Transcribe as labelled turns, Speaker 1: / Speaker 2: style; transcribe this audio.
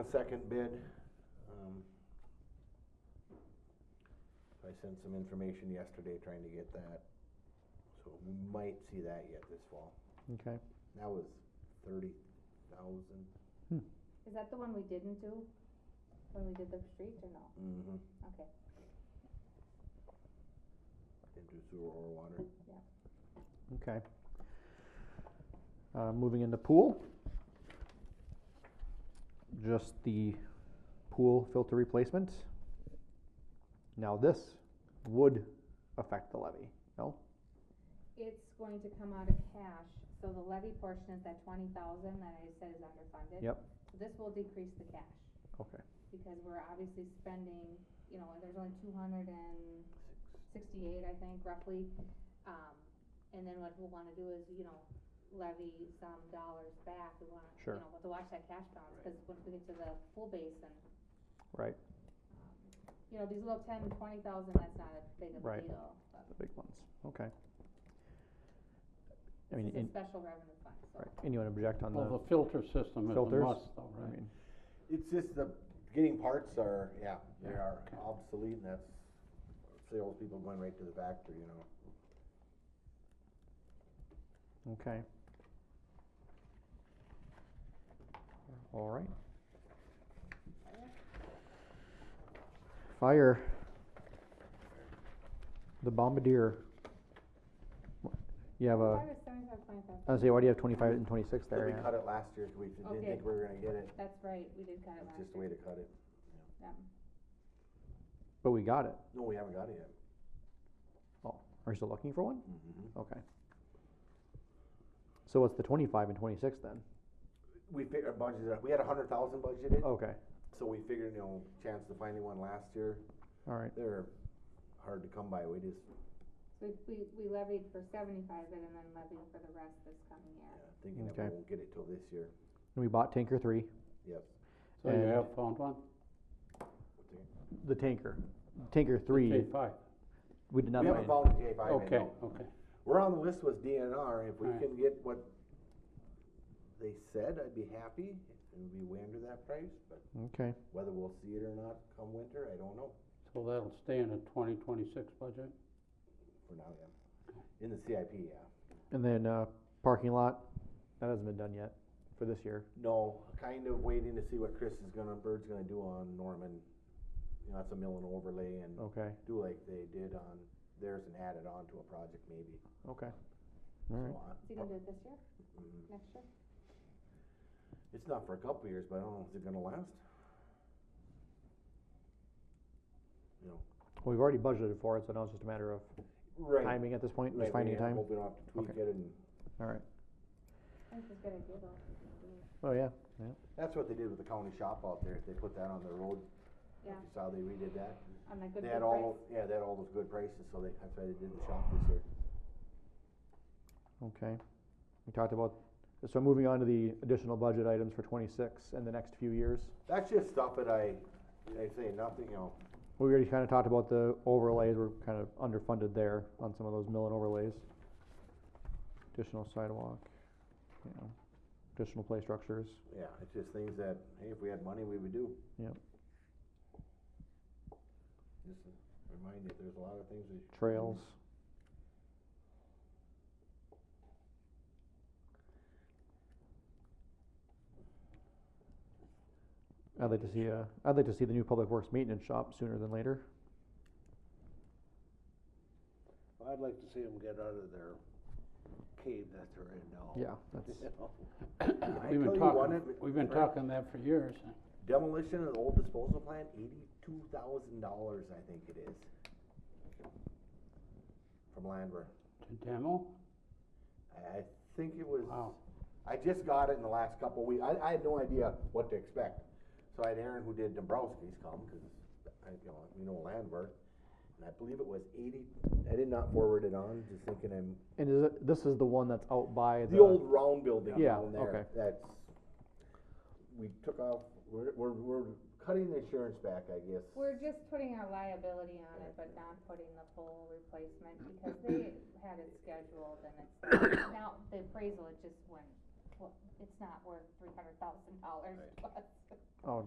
Speaker 1: A second bid. um, I sent some information yesterday trying to get that, so we might see that yet this fall.
Speaker 2: Okay,
Speaker 1: That was thirty thousand.
Speaker 3: Is that the one we didn't do when we did the streets or no?
Speaker 1: Mm-hmm.
Speaker 3: Okay.
Speaker 1: Into sewer or water.
Speaker 2: okay. Uh, moving into pool. Just the pool filter replacement. Now this would affect the levy, no?
Speaker 3: It's going to come out of cash, so the levy portion is that twenty thousand that I said is underfunded.
Speaker 2: Yep.
Speaker 3: So This will decrease the cash,
Speaker 2: Okay,
Speaker 3: because we're obviously spending, you know, there's only two hundred and sixty-eight, I think, roughly. Um, and then what we'll wanna do is, you know, levy some dollars back, we wanna, you
Speaker 2: Sure.
Speaker 3: know, to watch that cash balance, cause once we get to the full basin, Um,
Speaker 2: right,
Speaker 3: you know, these little ten, twenty thousand, that's not a big of a
Speaker 2: Right.
Speaker 3: deal. but
Speaker 2: the big ones, okay. I
Speaker 3: This
Speaker 2: mean,
Speaker 3: is a
Speaker 2: and,
Speaker 3: special revenue fund, so.
Speaker 2: right, anyone object on
Speaker 4: Well,
Speaker 2: the
Speaker 4: the filter system is a
Speaker 2: filters?
Speaker 4: must though,
Speaker 2: I
Speaker 4: right?
Speaker 2: mean,
Speaker 1: It's just the, getting parts are, yeah, they
Speaker 4: Yeah,
Speaker 1: are
Speaker 4: okay.
Speaker 1: obsolete and that's salespeople going right to the factory, you know.
Speaker 2: Okay. All right. Fire. The bombardier. Wha- You have a,
Speaker 3: Five or seventy-five,
Speaker 2: I
Speaker 3: twenty-five.
Speaker 2: was gonna say, why do you have twenty-five and twenty-six
Speaker 1: So
Speaker 2: there?
Speaker 1: we
Speaker 2: yeah?
Speaker 1: cut it last year, 'cause we didn't
Speaker 3: Okay.
Speaker 1: think we were gonna get it,
Speaker 3: That's right, we did cut it
Speaker 1: it's
Speaker 3: last
Speaker 1: just a way
Speaker 3: year.
Speaker 1: to cut it.
Speaker 3: Yeah.
Speaker 2: But we got it.
Speaker 1: No, we haven't got it yet.
Speaker 2: Are you still looking for one?
Speaker 1: Mm-hmm.
Speaker 2: Okay. So what's the twenty-five and twenty-six then?
Speaker 1: We figured, budgeted, we had a hundred thousand budgeted,
Speaker 2: Okay,
Speaker 1: So we figured, you know, chance of finding one last year,
Speaker 2: all right,
Speaker 1: they're hard to come by, we just,
Speaker 3: So we, we, we levied for seventy-five of it and then levied for the rest this coming
Speaker 1: yeah,
Speaker 3: year.
Speaker 1: uh, thinking that we
Speaker 2: Okay.
Speaker 1: won't get it till this year,
Speaker 2: and we bought tanker three,
Speaker 1: yep.
Speaker 4: So you
Speaker 2: And-
Speaker 4: have found one?
Speaker 2: the tanker, tanker three,
Speaker 4: K five,
Speaker 2: we did not
Speaker 1: We
Speaker 2: buy
Speaker 1: haven't
Speaker 2: any.
Speaker 1: found a J five
Speaker 4: okay, okay.
Speaker 1: We're on the list with DNR, if we
Speaker 4: Alright.
Speaker 1: can get what they said, I'd be happy, and we way under that price, but
Speaker 2: Okay,
Speaker 1: whether we'll see it or not come winter, I don't know,
Speaker 4: So that'll stay in the twenty twenty-six budget?
Speaker 1: for now, yeah. In the CIP, yeah,
Speaker 2: and then, uh, parking lot, that hasn't been done yet for this year.
Speaker 1: no, kind of waiting to see what Chris is gonna, Bird's gonna do on Norman, you know, that's a mill and overlay and
Speaker 2: Okay,
Speaker 1: do like they did on theirs and add it on to a project maybe.
Speaker 2: okay. All right,
Speaker 1: So, uh,
Speaker 3: Is he gonna do it this year,
Speaker 1: mm,
Speaker 3: next year?
Speaker 1: It's not for a couple years, but I don't know, is it gonna last? You know.
Speaker 2: well, we've already budgeted for it, so now it's just a matter of
Speaker 1: Right.
Speaker 2: timing at this point,
Speaker 1: right, we
Speaker 2: just finding a time,
Speaker 1: Hope we don't have to tweak
Speaker 2: Okay.
Speaker 1: it and,
Speaker 2: all right,
Speaker 3: I think it's a good idea though. if we can do it.
Speaker 2: oh, yeah,
Speaker 1: that's what they did with the county shop out there, they put that on the road. If
Speaker 3: Yeah.
Speaker 1: You saw they redid that,
Speaker 3: On a good
Speaker 1: they
Speaker 3: good
Speaker 1: had all,
Speaker 3: price.
Speaker 1: yeah, they had all those good prices, so they, that's why they did the shop this year.
Speaker 2: okay. We talked about, so moving on to the additional budget items for twenty-six and the next few years.
Speaker 1: That's just stuff that I, I say nothing, you know,
Speaker 2: We already kinda talked about the overlays, we're kind of underfunded there on some of those mill and overlays. Additional sidewalk, you know, additional play structures,
Speaker 1: yeah, it's just things that, hey, if we had money, we would do.
Speaker 2: Yep.
Speaker 1: Just a reminder, there's a lot of things we.
Speaker 2: trails, I'd like to see, uh, I'd like to see the new public works maintenance shop sooner than later.
Speaker 5: I'd like to see them get out of their cave that they're in now.
Speaker 2: Yeah, that's,
Speaker 5: You know?
Speaker 1: I
Speaker 4: We've
Speaker 1: tell
Speaker 4: been
Speaker 1: you one
Speaker 4: talking,
Speaker 1: of-
Speaker 4: we've been
Speaker 1: right.
Speaker 4: talking that for years.
Speaker 1: Demolition of the old disposal plant, eighty-two thousand dollars, I think it is. From Landver.
Speaker 4: To demo,
Speaker 1: I I think it was,
Speaker 4: Wow.
Speaker 1: I just got it in the last couple of weeks. I, I had no idea what to expect. So I had Aaron who did Dombrowski's come, cause I, you know, we know Landver. And I believe it was eighty, I did not forward it on, just thinking I'm,
Speaker 2: and is it, this is the one that's out by the.
Speaker 1: The old round building
Speaker 2: Yeah,
Speaker 1: down
Speaker 2: okay.
Speaker 1: there, that's, we took off, we're, we're, we're cutting the insurance back, I guess.
Speaker 3: We're just putting our liability on it, but not putting the full replacement because they had it scheduled and it's, now the appraisal, it just went, well, it's not worth three hundred thousand dollars plus.
Speaker 2: Oh,